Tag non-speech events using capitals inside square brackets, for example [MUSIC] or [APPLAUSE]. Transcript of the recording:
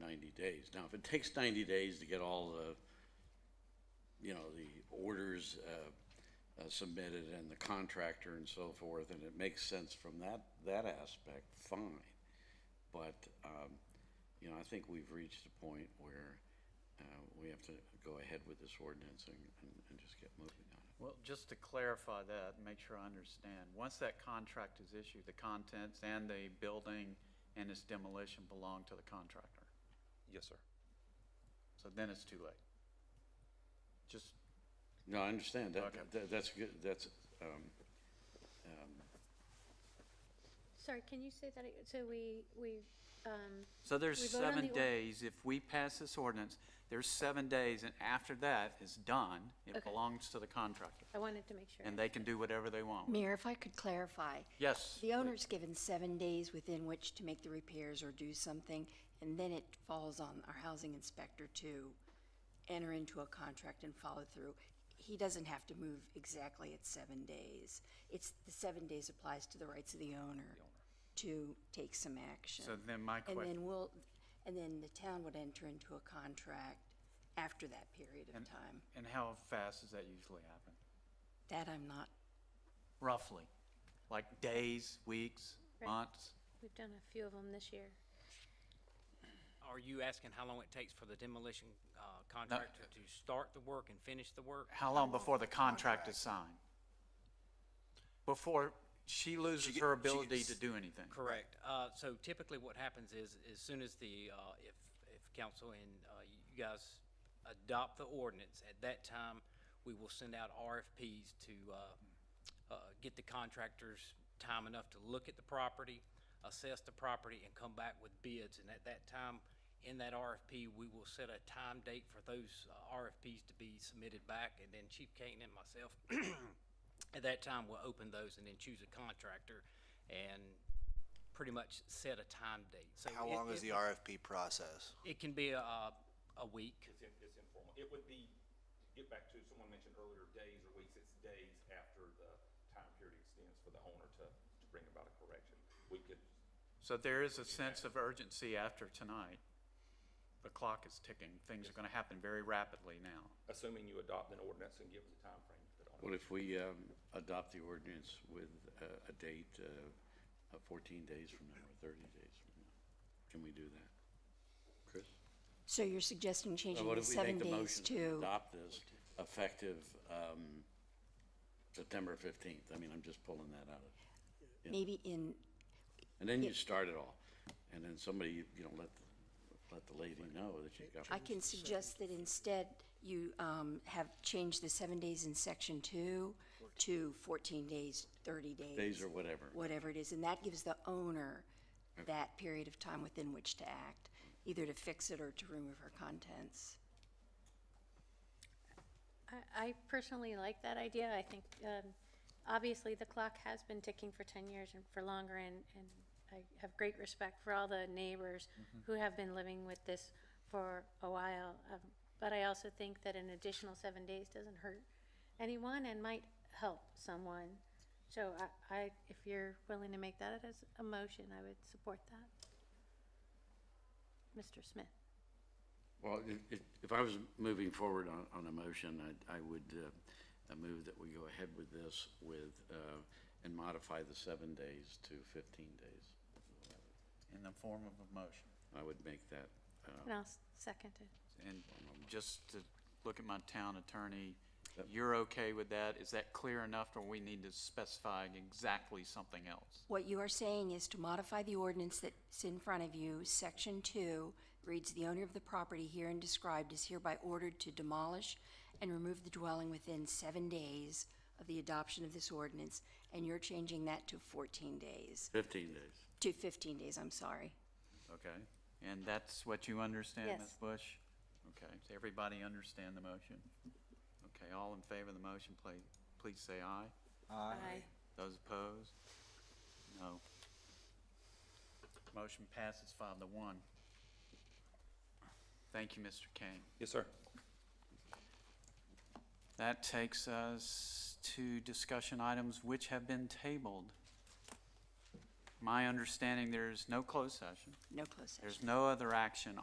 90 days. Now, if it takes 90 days to get all the, you know, the orders uh, uh, submitted and the contractor and so forth, and it makes sense from that, that aspect, fine. But, um, you know, I think we've reached a point where uh, we have to go ahead with this ordinance and, and- and just get moving on it. Well, just to clarify that, and make sure I understand, once that contract is issued, the contents and the building and its demolition belong to the contractor. Yes, sir. So then it's too late. Just, No, I understand. That, Okay. that- that's good, that's, um, um, Sorry, can you say that, ag- so we, we, um, so there's We vote on seven the or- days, if we pass this ordinance, there's seven days, and after that is done, it Okay. belongs to the contractor. I wanted to make sure. And they can do whatever they want. with it. Mayor, if I could clarify, Yes. the owner's given seven days within which to make the repairs or do something, and then it falls on our housing inspector to enter into a contract and follow through. He doesn't have to move exactly at seven days. It's, the seven days applies to the rights of the owner to take some action. So then my And question- then we'll, and then the town would enter into a contract after that period of And- time. And how fast does that usually happen? That I'm not Roughly? Like days, weeks, Right. months? We've done a few of them this year. Are you asking how long it takes for the demolition uh, contractor to start the work and finish the work? How long before the contract is signed? Before she loses her ability to do anything? Correct. Uh, So typically what happens is, as soon as the, uh, if, if council and uh, you guys adopt the ordinance, at that time, we will send out RFPs to uh, uh, get the contractors time enough to look at the property, assess the property, and come back with bids. And at that time, in that RFP, we will set a time date for those uh, RFPs to be submitted back. And then Chief Kane and myself, [CLEARS THROAT] at that time, we'll open those and then choose a contractor and pretty much set a time date. So How it- long is it- the RFP process? It can be a, a week. It's, in- it's informal. It would be, to get back to, someone mentioned earlier, days or weeks, it's days after the time period extends for the owner to, to bring about a correction. We could, So there is a sense of urgency after tonight. The clock is ticking. Things are going to happen very rapidly now. assuming you adopt an ordinance and give us a timeframe for the Well, owner. if we um, adopt the ordinance with uh, a date uh, of 14 days from now or 30 days from now, can we do that? Chris? So you're So suggesting changing What the if we make seven the days motion to to, adopt this effective um, September 15th? I mean, I'm just pulling that out. of- maybe in, And then you start it all. And then somebody, you know, let, let the lady know that you've got. I can suggest that instead you um, have changed the seven days in section two to 14 days, 30 days. Days or whatever. Whatever it is, and that gives the owner that period of time within which to act, either to fix it or to remove her contents. I, I personally like that idea. I think, um, obviously, the clock has been ticking for ten years and for longer, and, and I have great respect for all the neighbors who have been living with this for a while. Um, but I also think that an additional seven days doesn't hurt anyone and might help someone. So I, I, if you're willing to make that as a motion, I would support that. Mr. Smith? Well, i- i- if I was moving forward on, on a motion, I'd- I would uh, uh, move that we go ahead with this with, uh, and modify the seven days to 15 days. In the form of a motion. I would make that, uh, And I'll s- second it. And just to look at my town attorney, you're okay with that? Is that clear enough or we need to specify exactly something else? What you are saying is to modify the ordinance that's in front of you, section two reads, "The owner of the property herein described is hereby ordered to demolish and remove the dwelling within seven days of the adoption of this ordinance," and you're changing that to fourteen days, 15 days. to fifteen days, I'm sorry. Okay, and that's what you understand, Ms. Yes. Bush? Okay, does everybody understand the motion? Okay, all in favor of the motion, please, please say aye. Aye. Those opposed? No. Motion passes five to one. Thank you, Mr. Kane. Yes, sir. That takes us to discussion items which have been tabled. My understanding, there's no closed session. No close session. There's no other action